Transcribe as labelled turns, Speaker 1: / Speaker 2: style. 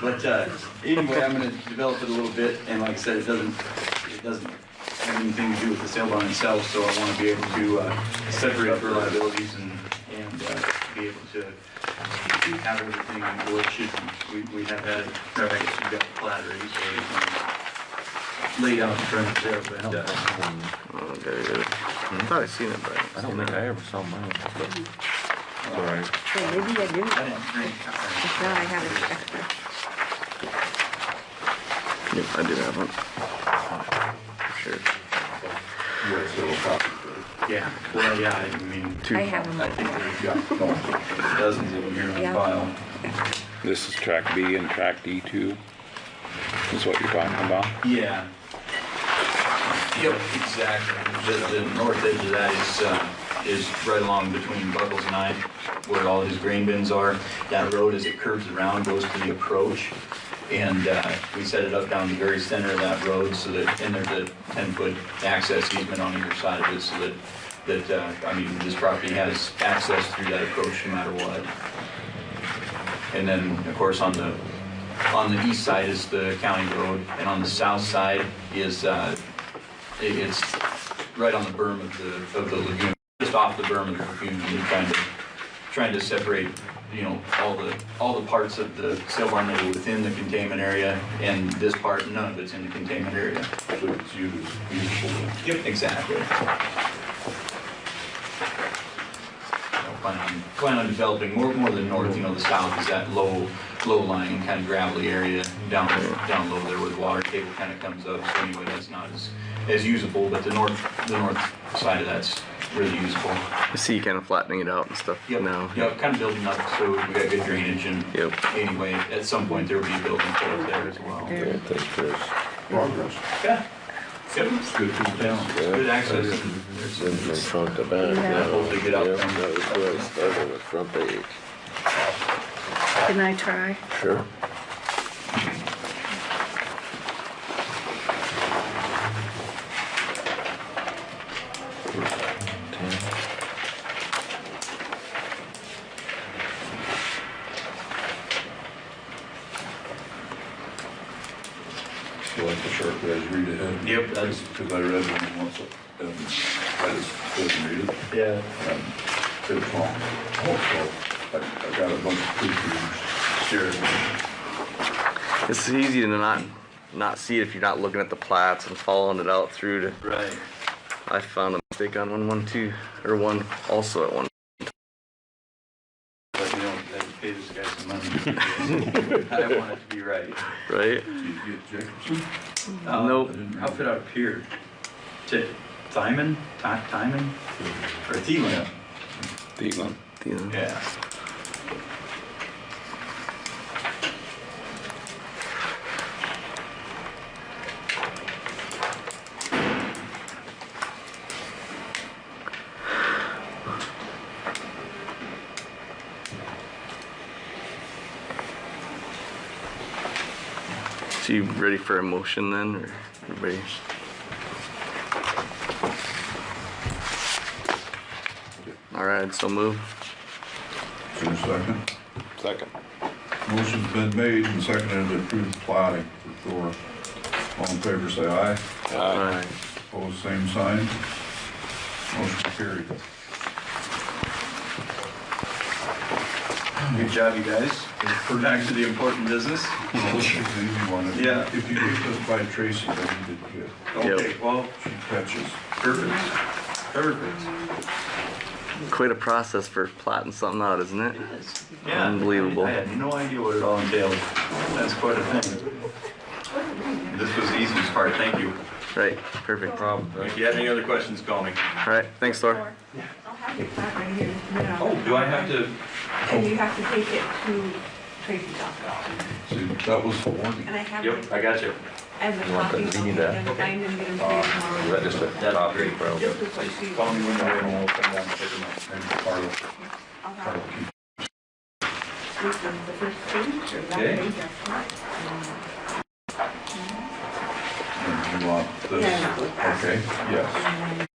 Speaker 1: But uh, anyway, I'm gonna develop it a little bit, and like I said, it doesn't, it doesn't have anything to do with the sail bond itself, so I wanna be able to uh, separate the liabilities and, and uh, be able to have everything in what should, we, we have had, right, you've got the plat ready, so you can lay out the premise there, but uh,
Speaker 2: Oh, there it is. I thought I seen it, but.
Speaker 3: I don't think I ever saw mine, but it's all right.
Speaker 4: Hey, maybe I didn't.
Speaker 1: uh, I didn't uh, drink.
Speaker 4: If not, I have an extra.
Speaker 2: Yep, I did have one. Sure.
Speaker 1: Yeah, well, yeah, I mean,
Speaker 2: Two.
Speaker 4: I have them
Speaker 1: I
Speaker 4: all.
Speaker 1: think we've got dozens of them here
Speaker 4: Yeah.
Speaker 1: on file.
Speaker 3: This is track B and track D two, is what you're talking about?
Speaker 1: Yeah. Yep, exactly. The, the north edge of that is, uh, is right along between Buckles and I, where all his grain bins are. That road, as it curves around, goes to the approach. And, uh, we set it up down the very center of that road so that, and there's a ten-foot access easement on either side of it so that, that, uh, I mean, this property has access through that approach no matter what. And then, of course, on the, on the east side is the county road, and on the south side is, uh, it- it's right on the berm of the, of the lagoon, just off the berm of the lagoon, and we're trying to, trying to separate, you know, all the, all the parts of the sail barn that are within the containment area, and this part, none of it's in the containment area.
Speaker 5: So it's used,
Speaker 1: Yep. Exactly. So Plan on, plan on developing more, more than north, you know, the south is that low, low lying kind of gravelly area down, down low there where the water table kind of comes up, so anyway, that's not as, as usable, but the north, the north side of that's really usable.
Speaker 2: I see you kind of flattening it out and stuff
Speaker 1: Yep,
Speaker 2: now.
Speaker 1: yep, kind of building up, so we got good drainage and
Speaker 2: Yep.
Speaker 1: anyway, at some point there will be building up there as well.
Speaker 4: There.
Speaker 3: Yeah, thanks, Chris.
Speaker 5: progress.
Speaker 1: Yeah. Yep,
Speaker 5: Good for the town.
Speaker 1: good access, and there's some
Speaker 6: Then they front to back.
Speaker 4: Yeah.
Speaker 6: yeah.
Speaker 1: Hopefully get out
Speaker 6: Yeah,
Speaker 1: them.
Speaker 6: That was where I started with front page.
Speaker 4: Can I try?
Speaker 6: Sure.
Speaker 5: So like the sharp guys read ahead.
Speaker 1: Yep, that's-
Speaker 5: Because I read one once, and I just couldn't read Um, it.
Speaker 1: Yeah.
Speaker 5: and It was wrong. Also, I, I got a bunch of pictures. Sure.
Speaker 2: It's easy to not not see it if you're not looking at the plats and following it out through to.
Speaker 1: Right.
Speaker 2: I found a mistake on one one two or one also at one.
Speaker 1: But you know, I pay this guy some money. I want it to be right.
Speaker 2: Right?
Speaker 5: Did you get Jacobson?
Speaker 1: Uh,
Speaker 2: Nope.
Speaker 1: Outfit out of Pier. Ti- Thyman? Ty- Thyman? Or Thielen?
Speaker 3: Thielen.
Speaker 2: You know.
Speaker 1: Yeah.
Speaker 2: So you ready for a motion then, or everybody? All right, so move.
Speaker 5: Is there a second?
Speaker 3: Second.
Speaker 5: Motion's been made and seconded to approve the plating for Thor. All in favor, say aye.
Speaker 2: All
Speaker 3: Aye.
Speaker 2: right.
Speaker 5: Opposed, same sign. Motion carried.
Speaker 1: Good job, you guys. We're back to the important business.
Speaker 5: This is the easy one. If-
Speaker 1: Yeah.
Speaker 5: If you get this by Tracy, then you did good.
Speaker 1: Okay, well,
Speaker 5: She catches.
Speaker 1: perfect. Perfect.
Speaker 2: Quite a process for plotting something out, isn't it?
Speaker 1: Yeah.
Speaker 2: Unbelievable.
Speaker 1: I had no idea what it all entailed. That's quite a thing. This was the easiest part, thank you.
Speaker 2: Right, perfect. All
Speaker 1: Problem. If you have any other questions, call me.
Speaker 2: right, thanks, Thor.
Speaker 7: I'll have your plat right here in just a minute. I'll-
Speaker 1: Oh, do I have to?
Speaker 7: And you have to take it to Tracy's office.
Speaker 5: See, that was the warning.
Speaker 7: And I have,
Speaker 1: Yep, I got you.
Speaker 7: as a
Speaker 6: want
Speaker 7: copy,
Speaker 6: that?
Speaker 7: I'll
Speaker 6: You need
Speaker 7: get them, find them, get them to you tomorrow.
Speaker 6: Is that just a
Speaker 1: That'd be
Speaker 6: copy,
Speaker 1: great.
Speaker 6: bro?
Speaker 7: This is what she-
Speaker 5: Call me when you're in, and we'll come down and pick them up. Maybe Carl,
Speaker 7: I'll have
Speaker 5: Carl
Speaker 7: it
Speaker 5: keep
Speaker 7: this is the first page, or that
Speaker 1: Okay.
Speaker 7: page after.
Speaker 5: them. You want this?
Speaker 7: Yeah.
Speaker 5: Okay, yes.